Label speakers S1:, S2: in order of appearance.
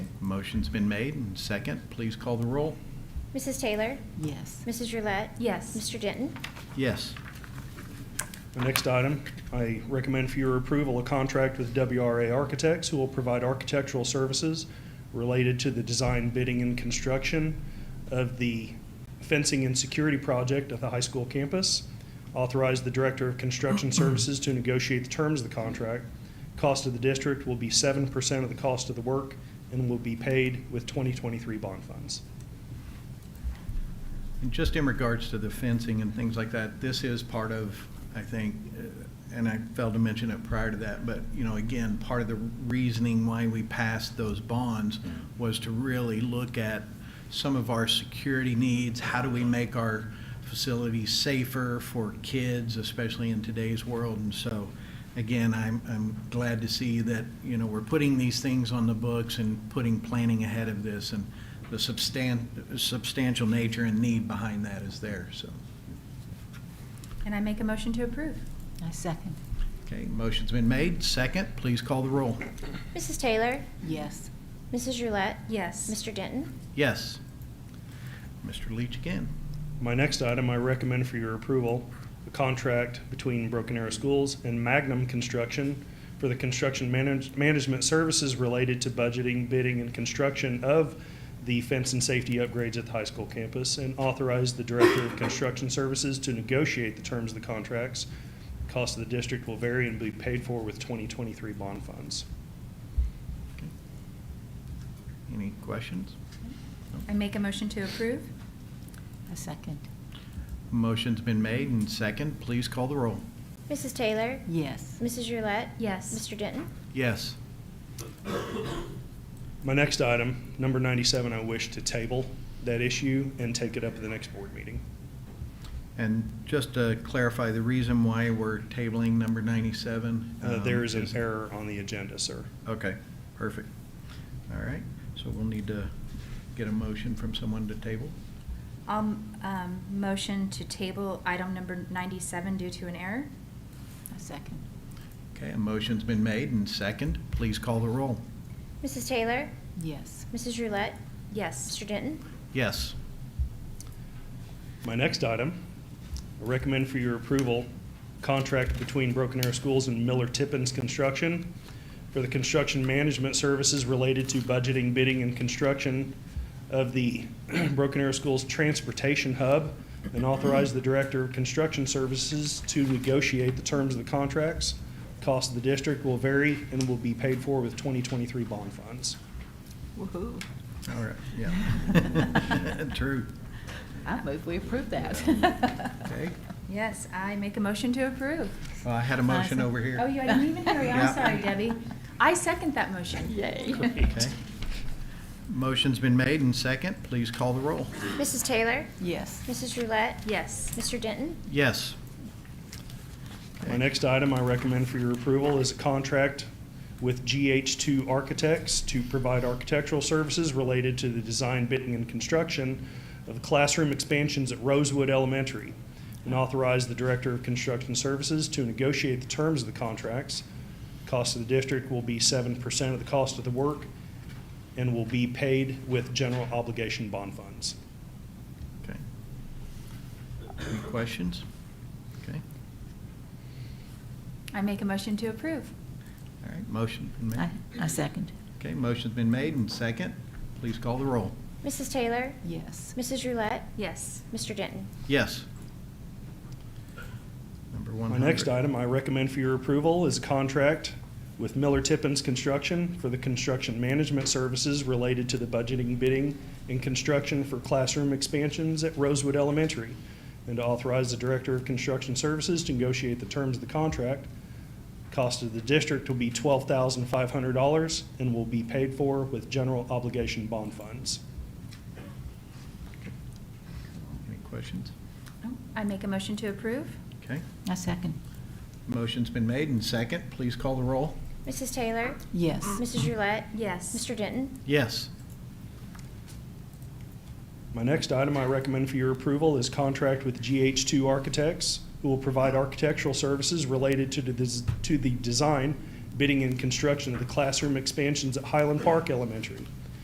S1: Motion's been made and second. Please call the roll.
S2: Mrs. Taylor?
S3: Yes.
S2: Mrs. Roulette?
S4: Yes.
S2: Mr. Denton?
S1: Yes.
S5: The next item, I recommend for your approval a contract with WRA Architects, who will provide architectural services related to the design, bidding, and construction of the fencing and security project at the high school campus. Authorize the Director of Construction Services to negotiate the terms of the contract. Cost of the district will be seven percent of the cost of the work and will be paid with twenty twenty-three bond funds.
S1: And just in regards to the fencing and things like that, this is part of, I think, uh, and I failed to mention it prior to that, but, you know, again, part of the reasoning why we passed those bonds was to really look at some of our security needs, how do we make our facilities safer for kids, especially in today's world? And so, again, I'm, I'm glad to see that, you know, we're putting these things on the books and putting planning ahead of this, and the substan- substantial nature and need behind that is there, so.
S4: And I make a motion to approve.
S3: I second.
S1: Okay, motion's been made. Second, please call the roll.
S2: Mrs. Taylor?
S3: Yes.
S2: Mrs. Roulette?
S4: Yes.
S2: Mr. Denton?
S1: Yes. Mr. Leach again.
S5: My next item I recommend for your approval, a contract between Broken Arrow Schools and Magnum Construction for the construction manage, management services related to budgeting, bidding, and construction of the fence and safety upgrades at the high school campus, and authorize the Director of Construction Services to negotiate the terms of the contracts. Cost of the district will vary and be paid for with 2023 bond funds.
S1: Any questions?
S4: I make a motion to approve.
S3: I second.
S1: Motion's been made and second, please call the roll.
S2: Mrs. Taylor?
S3: Yes.
S2: Mrs. Roulette?
S4: Yes.
S2: Mr. Denton?
S1: Yes.
S5: My next item, number 97, I wish to table that issue and take it up at the next board meeting.
S1: And just to clarify, the reason why we're tabling number 97?
S5: Uh,
S1: um,
S5: There is an error on the agenda, sir.
S1: Okay, perfect. All right, so we'll need to get a motion from someone to table.
S4: I'll um, motion to table item number 97 due to an error.
S3: I second.
S1: Okay, a motion's been made and second, please call the roll.
S2: Mrs. Taylor?
S3: Yes.
S2: Mrs. Roulette?
S4: Yes.
S2: Mr. Denton?
S1: Yes.
S5: My next item, I recommend for your approval, contract between Broken Arrow Schools and Miller Tippins Construction for the construction management services related to budgeting, bidding, and construction of the Broken Arrow Schools Transportation Hub, and authorize the Director of Construction Services to negotiate the terms of the contracts. Cost of the district will vary and will be paid for with 2023 bond funds.
S3: Woo-hoo.
S1: All right, yeah. True.
S3: I move we approve that.
S1: Okay.
S4: Yes, I make a motion to approve.
S1: Well, I had a motion over here.
S4: Oh, you I didn't even hear you.
S1: Yeah.
S4: I'm sorry, Debbie. I second that motion.
S3: Yay.
S1: Okay. Motion's been made and second, please call the roll.
S2: Mrs. Taylor?
S3: Yes.
S2: Mrs. Roulette?
S4: Yes.
S2: Mr. Denton?
S1: Yes.
S5: My next item I recommend for your approval is a contract with GH2 Architects to provide architectural services related to the design, bidding, and construction of classroom expansions at Rosewood Elementary, and authorize the Director of Construction Services to negotiate the terms of the contracts. Cost of the district will be 7% of the cost of the work and will be paid with general obligation bond funds.
S1: Okay. Any questions? Okay,
S4: I make a motion to approve.
S1: all right, motion been
S3: I
S1: made.
S3: I second.
S1: Okay, motion's been made and second, please call the roll.
S2: Mrs. Taylor?
S3: Yes.
S2: Mrs. Roulette?
S4: Yes.
S2: Mr. Denton?
S1: Yes. Number one.
S5: My next item I recommend for your approval is a contract with Miller Tippins Construction for the construction management services related to the budgeting, bidding, and construction for classroom expansions at Rosewood Elementary, and to authorize the Director of Construction Services to negotiate the terms of the contract. Cost of the district will be twelve thousand five hundred dollars and will be paid for with general obligation bond funds.
S1: Any questions?
S4: I make a motion to approve.
S1: Okay,
S3: I second.
S1: motion's been made and second, please call the roll.
S2: Mrs. Taylor?
S3: Yes.
S2: Mrs. Roulette?
S4: Yes.
S2: Mr. Denton?
S1: Yes.
S5: My next item I recommend for your approval is contract with GH2 Architects, who will provide architectural services related to the, des- to the design, bidding, and construction of the classroom expansions at Highland Park Elementary.